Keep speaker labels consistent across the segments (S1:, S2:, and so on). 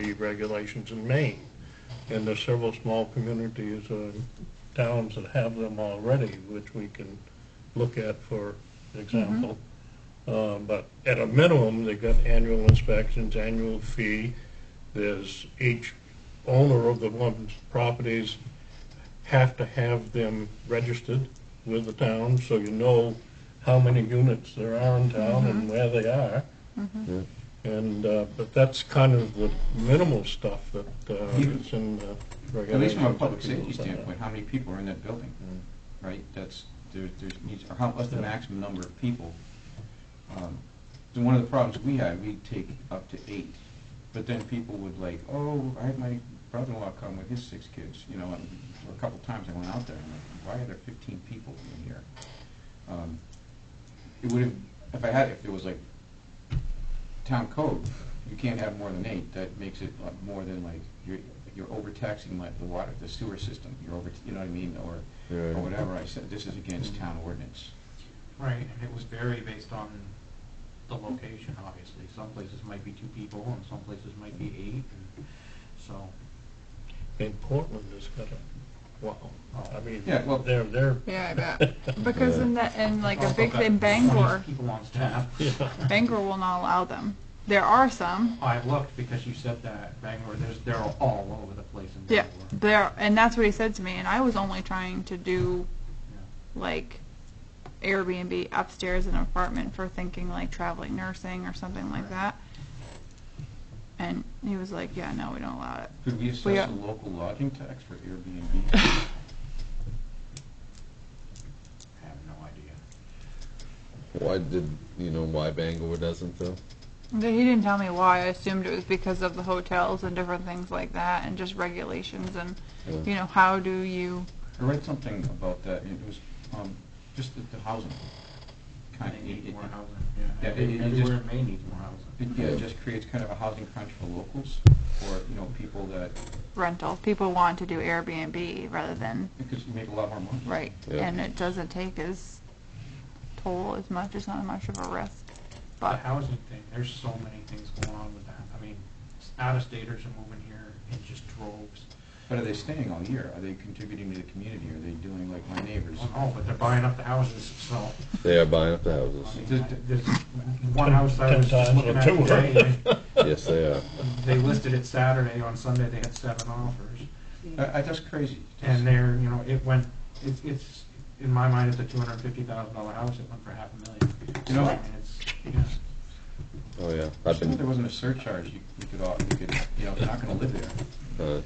S1: DEP regulations in Maine. And there's several small communities, uh, towns that have them already, which we can look at for example. Uh, But at a minimum, they've got annual inspections, annual fee. There's each owner of the one's properties have to have them registered with the town, so you know how many units there are in town and where they are. And, uh, but that's kind of the minimal stuff that uh,
S2: You-
S1: is in the regulations.
S2: At least from a public
S1: that we
S2: safety
S1: look at.
S2: standpoint, how many people are in that building, right? That's, there, there's needs, or how, what's the maximum number of people? Um, So one of the problems we had, we'd take up to eight, but then people would like, oh, I had my brother-in-law come with his six kids, you know, and a couple times I went out there, and I'm like, why are there fifteen people in here? Um, It would have, if I had, if there was like town code, you can't have more than eight, that makes it like more than like, you're, you're overtaxing like the water, the sewer system, you're over, you know what I mean, or, or
S3: Yeah.
S2: whatever, I said, this is against town ordinance.
S4: Right, and it was very based on the location, obviously. Some places might be two people, and some places might be eight, and so,
S1: And Portland has got a, wow, I mean,
S2: Yeah, well-
S1: they're, they're,
S5: Yeah, I bet. Because in that, and like a
S4: Also
S5: big
S4: got
S5: thing, Bangor,
S4: 20 People on staff.
S1: yeah.
S5: Bangor will not allow them. There are some,
S4: I looked because you said that Bangor, there's, they're all over the place in
S5: yeah,
S4: Bangor.
S5: there, and that's what he said to me, and I was only trying to do like Airbnb upstairs in an apartment for thinking like traveling nursing or something like
S4: Right.
S5: that. And he was like, yeah, no, we don't allow it.
S2: Could we
S5: We
S2: assess
S5: are-
S2: a local lodging tax for Airbnb?
S4: I have no idea.
S3: Why did, you know, why Bangor doesn't though?
S5: He didn't tell me why. I assumed it was because of the hotels and different things like that and just regulations and,
S3: Yeah.
S5: you know, how do you,
S2: I read something about that, and it was, um, just the, the housing. Kind
S4: They
S2: of,
S4: need
S2: it,
S4: more housing,
S2: Yeah,
S4: yeah.
S2: it- it- it
S4: Everywhere
S2: just-
S4: in Maine needs more housing.
S2: it, yeah, it just creates kind of a housing crunch for locals, or, you know, people that,
S5: rental. People want to do Airbnb rather than
S2: because you make a lot more money.
S5: right,
S3: Yeah.
S5: and it doesn't take as toll as much. It's not as much of a risk.
S4: The
S5: But
S4: housing thing, there's so many things going on with that. I mean, out-of-staters are moving here in just droves.
S2: But are they staying all year? Are they contributing to the community? Are they doing like my neighbors?
S4: Oh, no, but they're buying up the houses, so.
S3: They are buying up the houses.
S4: I mean, There's one house I
S1: Ten
S4: was just
S1: times
S4: looking
S1: or
S4: at
S1: two.
S4: today,
S3: Yes, they are.
S4: and they listed it Saturday, on Sunday they had seven offers.
S2: I, I, that's crazy.
S4: And they're, you know, it went, it's, it's, in my mind, it's a two hundred and fifty thousand dollar house, it went for half a million. You know, I mean, it's, yeah.
S3: Oh yeah, I've
S2: If there
S3: been.
S2: wasn't a surcharge, you, you could, all- you could, you know, they're not gonna live there.
S3: Uh,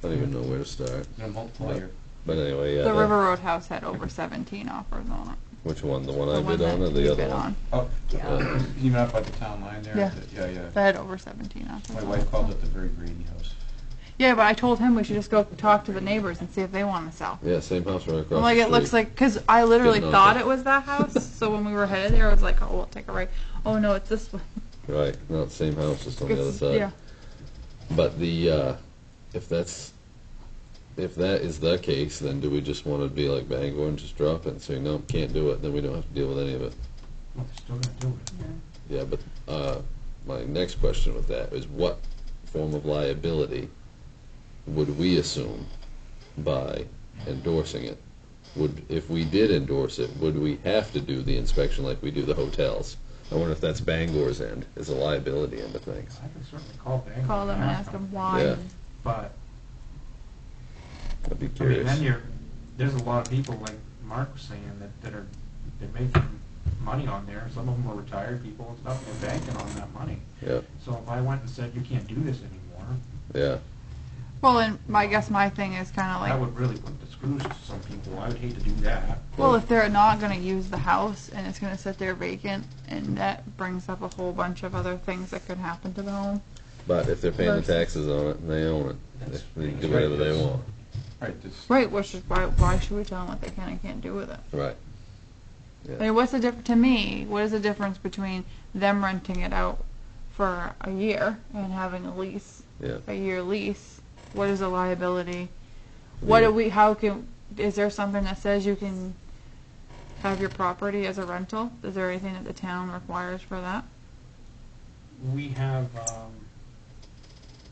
S3: I don't even know where to start.
S2: You're gonna multiply your,
S3: But anyway, yeah.
S5: the
S3: that-
S5: River Road House had over 17 offers on it.
S3: Which one? The one
S5: the
S3: I
S5: one
S3: bid on,
S5: that
S3: or
S5: we
S3: the other
S5: bid
S3: one?
S5: on.
S2: oh,
S3: Yeah.
S2: you know, up by the town line there?
S5: Yeah.
S2: the- Yeah,
S5: They
S2: yeah.
S5: had over 17 offers.
S2: My
S5: on
S2: wife
S5: it,
S2: called
S5: so.
S2: it the very greedy house.
S5: Yeah, but I told him we should just go talk to the neighbors and see if they want to sell.
S3: Yeah, same house right across.
S5: I'm like,
S3: the
S5: it looks
S3: street.
S5: like, because I literally
S3: Didn't know
S5: thought
S3: that.
S5: it was that house. so when we were headed there, I was like, oh, we'll take a right. Oh, no, it's this one.
S3: Right, not same house, just on the other
S5: It's-
S3: side.
S5: yeah.
S3: But the uh, if that's if that is the case, then do we just want to be like Bangor and just drop it and say no, can't do it? Then we don't have to deal with any of it.
S4: Well, they're still gonna do it.
S3: Yeah, but uh, my next question with that is what form of liability would we assume by endorsing it? Would if we did endorse it, would we have to do the inspection like we do the hotels? I wonder if that's Bangor's end, is a liability end of things.
S4: I can certainly call Bangor.
S5: Call them and ask them why.
S3: Yeah.
S4: But,
S3: I'd be
S4: I mean,
S3: curious.
S4: then you're, there's a lot of people, like Mark was saying, that, that are, they're making money on there, some of them are retired people and stuff, and they're banking on that money.
S3: yeah,
S4: So if I went and said, you can't do this anymore,
S3: yeah,
S5: Well, and my, I guess my thing is kind of like,
S4: that would really put the screws to some people. I would hate to do that.
S5: Well, if they're not going to use the house and it's going to sit there vacant, and that brings up a whole bunch of other things that could happen to the home.
S3: but if they're paying the
S5: Versus-
S3: taxes on it and they own it,
S4: That's-
S3: they, they can do whatever they want.
S2: All right, this,
S5: Right, which is why, why should we tell them what they can and can't do with it?
S3: Right.
S5: I mean, what's the diff- to me, what is the difference between them renting it out for a year and having a lease,
S3: Yeah.
S5: a year lease? What is the liability? What
S3: Yeah.
S5: do we, how can, is there something that says you can have your property as a rental? Is there anything that the town requires for that?
S4: We have, um,